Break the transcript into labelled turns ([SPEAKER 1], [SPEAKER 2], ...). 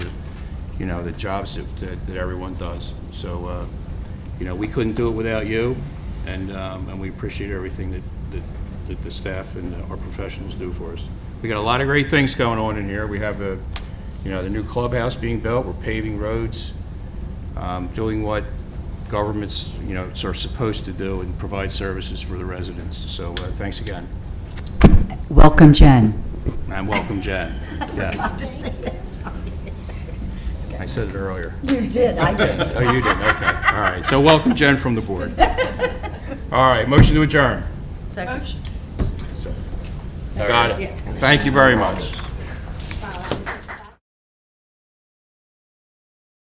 [SPEAKER 1] you know, the jobs that- that, that everyone does. So, uh, you know, we couldn't do it without you, and, um, and we appreciate everything that, that, that the staff and our professionals do for us. We got a lot of great things going on in here. We have the, you know, the new clubhouse being built, we're paving roads, um, doing what governments, you know, are supposed to do and provide services for the residents. So, uh, thanks again,
[SPEAKER 2] Welcome, Jen.
[SPEAKER 1] and welcome, Jen. Yes. I said it earlier.
[SPEAKER 3] You did, I did.
[SPEAKER 1] Oh, you did, okay. All right, so welcome Jen from the board. All right, motion to adjourn.
[SPEAKER 3] Second.
[SPEAKER 1] Got it. Thank you very much.